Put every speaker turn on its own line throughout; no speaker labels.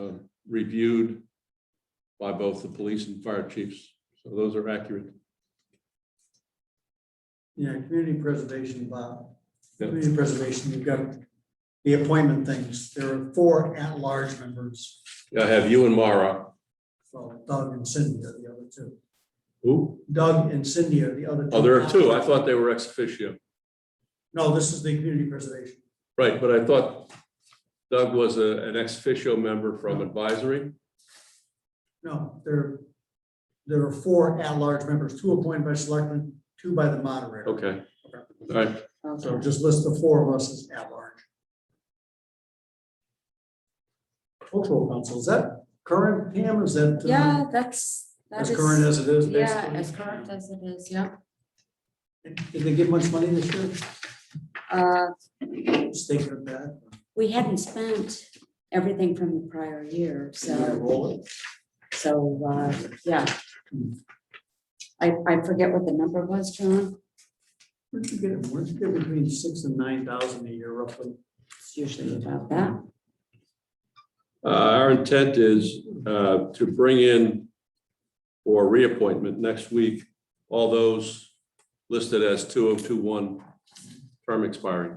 uh, reviewed by both the police and fire chiefs. So those are accurate.
Yeah, community preservation, Bob.
Yeah.
Community preservation, you've got the appointment things. There are four at-large members,
I have you and Mara.
well, Doug and Cindy are the other two.
Who?
Doug and Cindy are the other.
Oh, there are two. I thought they were ex officio.
No, this is the community preservation.
Right, but I thought Doug was a, an ex officio member from advisory.
No, there, there are four at-large members, two appointed by selectmen, two by the moderator.
Okay. All right,
So just list the four of us as at-large. Cultural council, is that current, Pam, is that? uh,
Yeah, that's, that
As
is.
current as it is, basically?
Yeah, as current as it is, yeah.
Did they give much money this year?
Uh,
State of that,
we hadn't spent everything from the prior year,
Did they
so,
roll it?
so, uh, yeah. I, I forget what the number was, John.
Where'd you get it? Where'd you get between six and nine thousand a year roughly?
It's usually about that.
Uh, our intent is, uh, to bring in for reappointment next week, all those listed as two oh two one term expiring.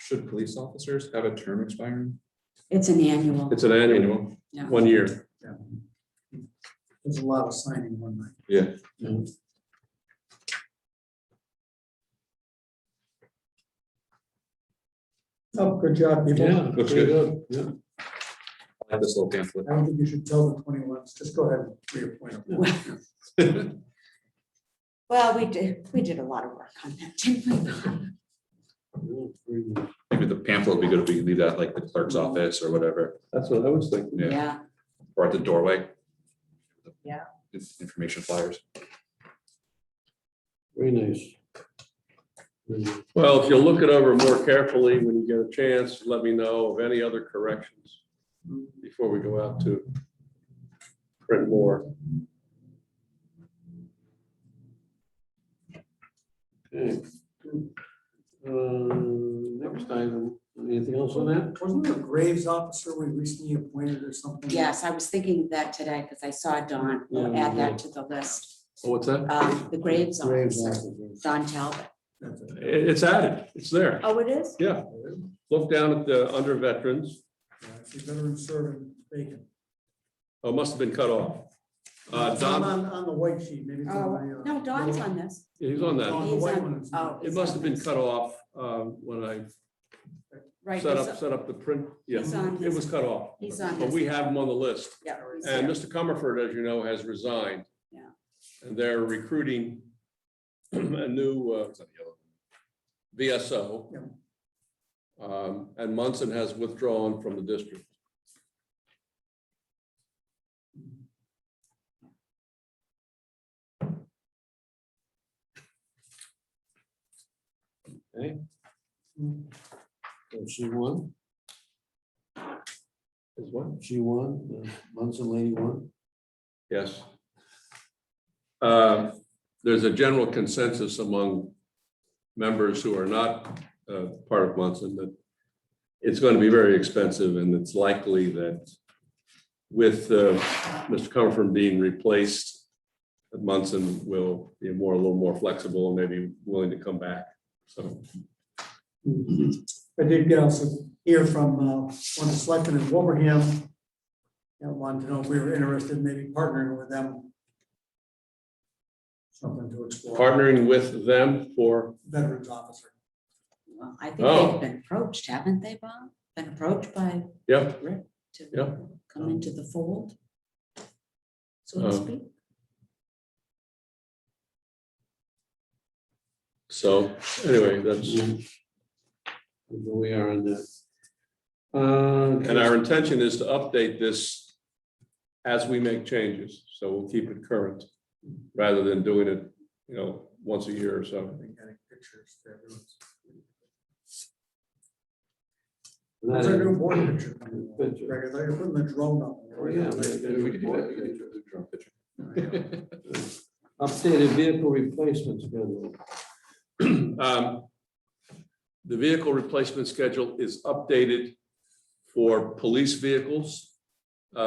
Should police officers have a term expiring?
It's an annual.
It's an annual,
Yeah.
one year.
There's a lot of signing one night.
Yeah.
Oh, good job, people.
Looks good. I like this little pamphlet.
I don't think you should tell the twenty ones, just go ahead and reappoint them.
Well, we did, we did a lot of work on that, didn't we?
Maybe the pamphlet would be good if we could leave that like the clerk's office or whatever,
That's what I was thinking.
Yeah.
Yeah,
or at the doorway.
Yeah.
It's Information flyers.
Very nice.
Well, if you look it over more carefully when you get a chance, let me know of any other corrections before we go out to print more.
Okay. Uh, Next item, anything else on that?
Wasn't there a Graves officer we recently appointed or something?
yes, I was thinking of that today because I saw Don, we'll add that to the list.
Oh, What's that?
Um, the Graves
Graves
officer,
officer.
Don Talbot.
That's it.
It's added. It's there.
Oh, it is?
Yeah. Look down at the, under veterans.
Yeah, Actually, veteran serving vacant.
Oh, must have been cut off. Uh,
It's not
Don,
On, on the white sheet, maybe. it's on
Oh,
my, uh,
no, Don's on this.
he's on that.
On the
He's
white
on-
one. it's
oh,
not.
It must have been cut off um, when I
Right,
set
he's-
up, set up the print. Yeah,
He's on
it
his-
was cut off.
he's on
But
his-
we have him on the list.
yeah, he's
And
there.
Mr. Comerford, as you know, has resigned.
Yeah.
And they're recruiting a new uh,
It's on the yellow.
VSO.
Yeah.
Um, And Munson has withdrawn from the district.
She won? Is what? She won, the Munson lady won.
Yes. Uh, There's a general consensus among members who are not uh, part of Munson that it's going to be very expensive and it's likely that with uh, Mr. Comerford being replaced, that Munson will be more, a little more flexible and maybe willing to come back. So
I did get also hear from uh, one of the selectmen in Wilbraham. That wanted to know if we were interested in maybe partnering with them. Something to explore,
partnering with them for,
veterans officer.
Well, I think
Oh.
they've been approached, haven't they, Bob? Been approached by
yeah,
Rick to
Yeah.
come into the fold? So to
Oh.
speak.
so anyway, that's,
Where we are on that. Uh,
and our intention is to update this as we make changes, so we'll keep it current, rather than doing it, you know, once a year or
I
so.
think I had pictures for everyone's- That's our
that-
new board picture.
Picture.
Greg, I thought you were putting the drone up.
Oh, yeah.
We could do that. We could do a drone picture.
Updated vehicle replacement schedule.
Um, The vehicle replacement schedule is updated for police vehicles